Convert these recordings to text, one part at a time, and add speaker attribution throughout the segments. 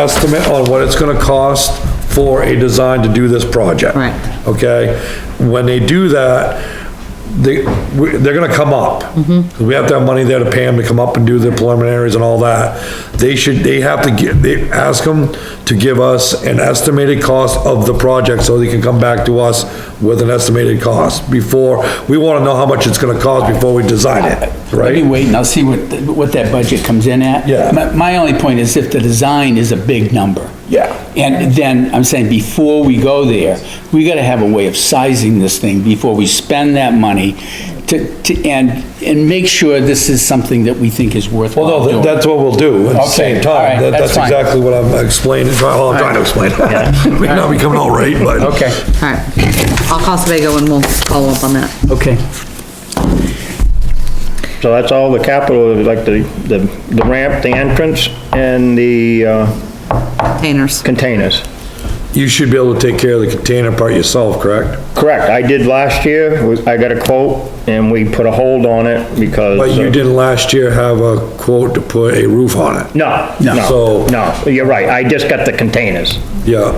Speaker 1: estimate on what it's gonna cost for a design to do this project.
Speaker 2: Right.
Speaker 1: Okay? When they do that, they, we- they're gonna come up. We have to have money there to pay them to come up and do their preliminaries and all that. They should, they have to get, they, ask them to give us an estimated cost of the project so they can come back to us with an estimated cost before, we wanna know how much it's gonna cost before we design it,
Speaker 3: Let me
Speaker 1: right?
Speaker 3: wait and I'll see what, what that budget comes in at.
Speaker 1: Yeah.
Speaker 3: My, my only point is if the design is a big number.
Speaker 1: Yeah.
Speaker 3: And then, I'm saying, before we go there, we gotta have a way of sizing this thing before we spend that money to, to, and, and make sure this is something that we think is worthwhile
Speaker 1: Well, no,
Speaker 3: doing.
Speaker 1: that- that's what we'll do at the
Speaker 3: Okay,
Speaker 1: same
Speaker 3: all right,
Speaker 1: time. That- That's
Speaker 3: that's fine.
Speaker 1: exactly what I'm explaining, well, I'm trying to explain. May not be coming out right, but.
Speaker 3: Okay,
Speaker 2: All right, I'll call Sebago and we'll follow up on that.
Speaker 3: okay.
Speaker 4: So that's all the capital, like the, the the ramp, the entrance, and the uh,
Speaker 2: Containers.
Speaker 4: containers.
Speaker 1: You should be able to take care of the container part yourself, correct?
Speaker 4: Correct, I did last year, was- I got a quote, and we put a hold on it because.
Speaker 1: But you
Speaker 4: uh,
Speaker 1: didn't last year have a quote to put a roof on it.
Speaker 4: No,
Speaker 1: So-
Speaker 4: no, no, you're right, I just got the containers.
Speaker 1: Yeah.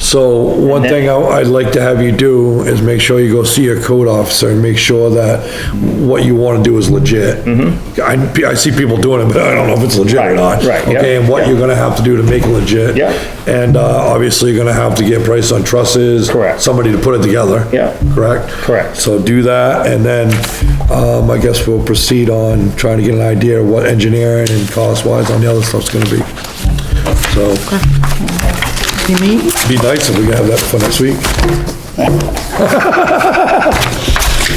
Speaker 1: So one
Speaker 4: then-
Speaker 1: thing I- I'd like to have you do is make sure you go see your code officer and make sure that what you wanna do is legit. Mm-hmm. I, I see people doing it, but I don't know if it's legit or not.
Speaker 4: Right, right, yeah,
Speaker 1: Okay, and what you're gonna have to do to make it legit.
Speaker 4: Yeah.
Speaker 1: And, uh, obviously you're gonna have to get price on trusses.
Speaker 4: Correct.
Speaker 1: Somebody to put it together.
Speaker 4: Yeah.
Speaker 1: Correct?
Speaker 4: Correct.
Speaker 1: So do that, and then, um, I guess we'll proceed on trying to get an idea of what engineering and cost-wise on the other stuff's gonna be. So,
Speaker 2: You meet?
Speaker 1: be nice if we could have that for next week.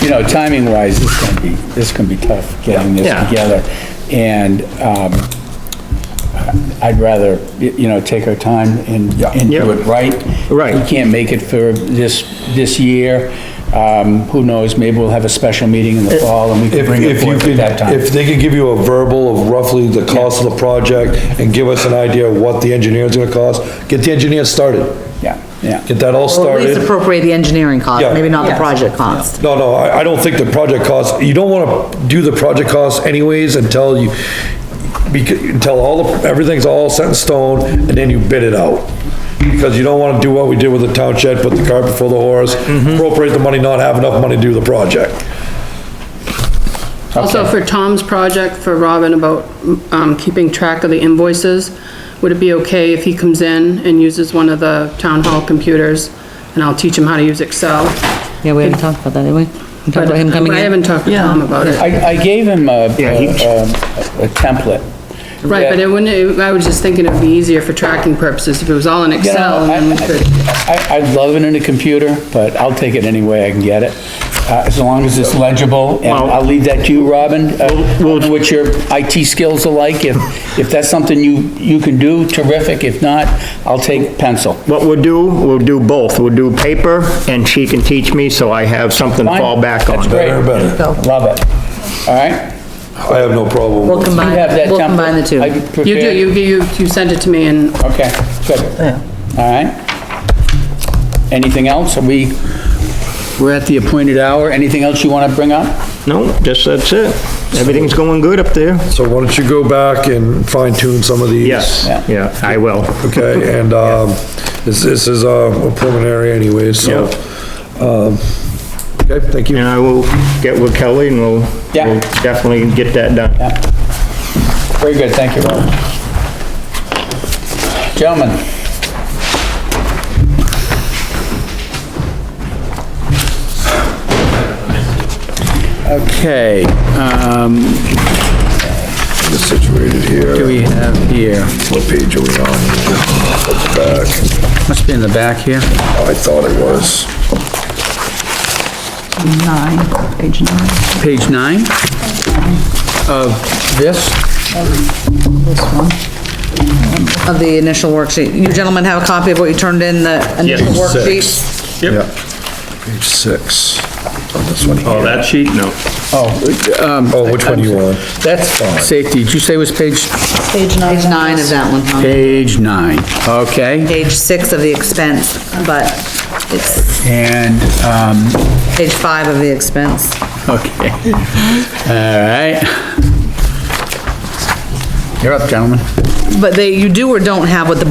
Speaker 3: you know, timing wise, it's gonna be, it's gonna be tough getting this
Speaker 4: Yeah.
Speaker 3: together. And, um, I'd rather, y- you know, take our time and, and do it right.
Speaker 4: Right.
Speaker 3: We can't make it for this, this year. Um, who knows, maybe we'll have a special meeting in the fall and we can
Speaker 1: If,
Speaker 3: bring it
Speaker 1: if you
Speaker 3: forward at
Speaker 1: could,
Speaker 3: that time.
Speaker 1: if they could give you a verbal of roughly the cost of the project and give us an idea of what the engineer's gonna cost, get the engineer started.
Speaker 3: Yeah, yeah.
Speaker 1: Get that all
Speaker 2: Or at least
Speaker 1: started.
Speaker 2: appropriate the engineering cost,
Speaker 1: Yeah.
Speaker 2: maybe not the project cost.
Speaker 1: No, no, I, I don't think the project cost, you don't wanna do the project cost anyways until you, becau- until all, the everything's all set in stone, and then you bid it out. Because you don't wanna do what we did with the town shed, put the cart before the horse,
Speaker 3: Mm-hmm.
Speaker 1: appropriate the money, not have enough money to do the project.
Speaker 5: Also, for Tom's project, for Robin about um, keeping track of the invoices, would it be okay if he comes in and uses one of the town hall computers? And I'll teach him how to use Excel.
Speaker 2: Yeah, we haven't talked about that, did we? We talked
Speaker 5: But
Speaker 2: about him coming
Speaker 5: I
Speaker 2: in?
Speaker 5: haven't talked to Tom about it.
Speaker 3: I, I gave him a,
Speaker 4: Yeah, he-
Speaker 3: a- a template.
Speaker 5: Right, but
Speaker 3: Yeah.
Speaker 5: it wouldn't, it- I was just thinking it'd be easier for tracking purposes if it was all in
Speaker 3: You know,
Speaker 5: Excel and then we could.
Speaker 3: I, I I love it in a computer, but I'll take it any way I can get it, uh, as long as it's legible, and I'll leave that to you, Robin, uh, what your IT skills are like, if, if that's something you, you can do, terrific, if not, I'll take pencil.
Speaker 4: What we'll do, we'll do both, we'll do paper, and she can teach me, so I have something to
Speaker 3: Fine.
Speaker 4: fall back on.
Speaker 3: That's great.
Speaker 1: Better, better.
Speaker 3: Love it, all right?
Speaker 1: I have no problem.
Speaker 2: We'll
Speaker 1: with-
Speaker 3: You
Speaker 2: combine,
Speaker 3: have that
Speaker 2: we'll
Speaker 3: template?
Speaker 2: combine the
Speaker 3: Are
Speaker 2: two.
Speaker 5: You do,
Speaker 3: prepared?
Speaker 5: you, you you sent it to me and
Speaker 3: Okay, good. All right. Anything else? Are we, we're at the appointed hour, anything else you want to bring up?
Speaker 4: No, just, that's it. Everything's going good up there?
Speaker 1: So why don't you go back and fine tune some of these?
Speaker 4: Yes,
Speaker 3: Yeah.
Speaker 4: yeah, I will.
Speaker 1: Okay, and, um, this, this is uh, a preliminary anyway, so, um, okay, thank you.
Speaker 4: And I will get with Kelly, and we'll
Speaker 3: Yeah.
Speaker 4: we'll definitely get that done.
Speaker 3: Very good, thank you, Robert. Gentlemen. Okay, um,
Speaker 1: Just situated
Speaker 3: do
Speaker 1: here,
Speaker 3: we have here?
Speaker 1: what page are we on? Look back,
Speaker 3: Must be in the back here.
Speaker 1: I thought it was.
Speaker 6: nine, page nine.
Speaker 3: Page nine of this?
Speaker 2: Of the initial worksheet. You gentlemen have a copy of what you turned in, the initial worksheet?
Speaker 1: Yep. Page six, on this one here.
Speaker 4: that sheet? No.
Speaker 1: Oh, which one do you want?
Speaker 3: That's safety. Did you say it was page?
Speaker 6: Page nine.
Speaker 2: Page nine of that one, huh?
Speaker 3: Page nine, okay.
Speaker 2: Page six of the expense, but it's
Speaker 3: And, um,
Speaker 2: page five of the expense.
Speaker 3: Okay. All right. You're up, gentlemen.
Speaker 2: But they, you do or don't have what the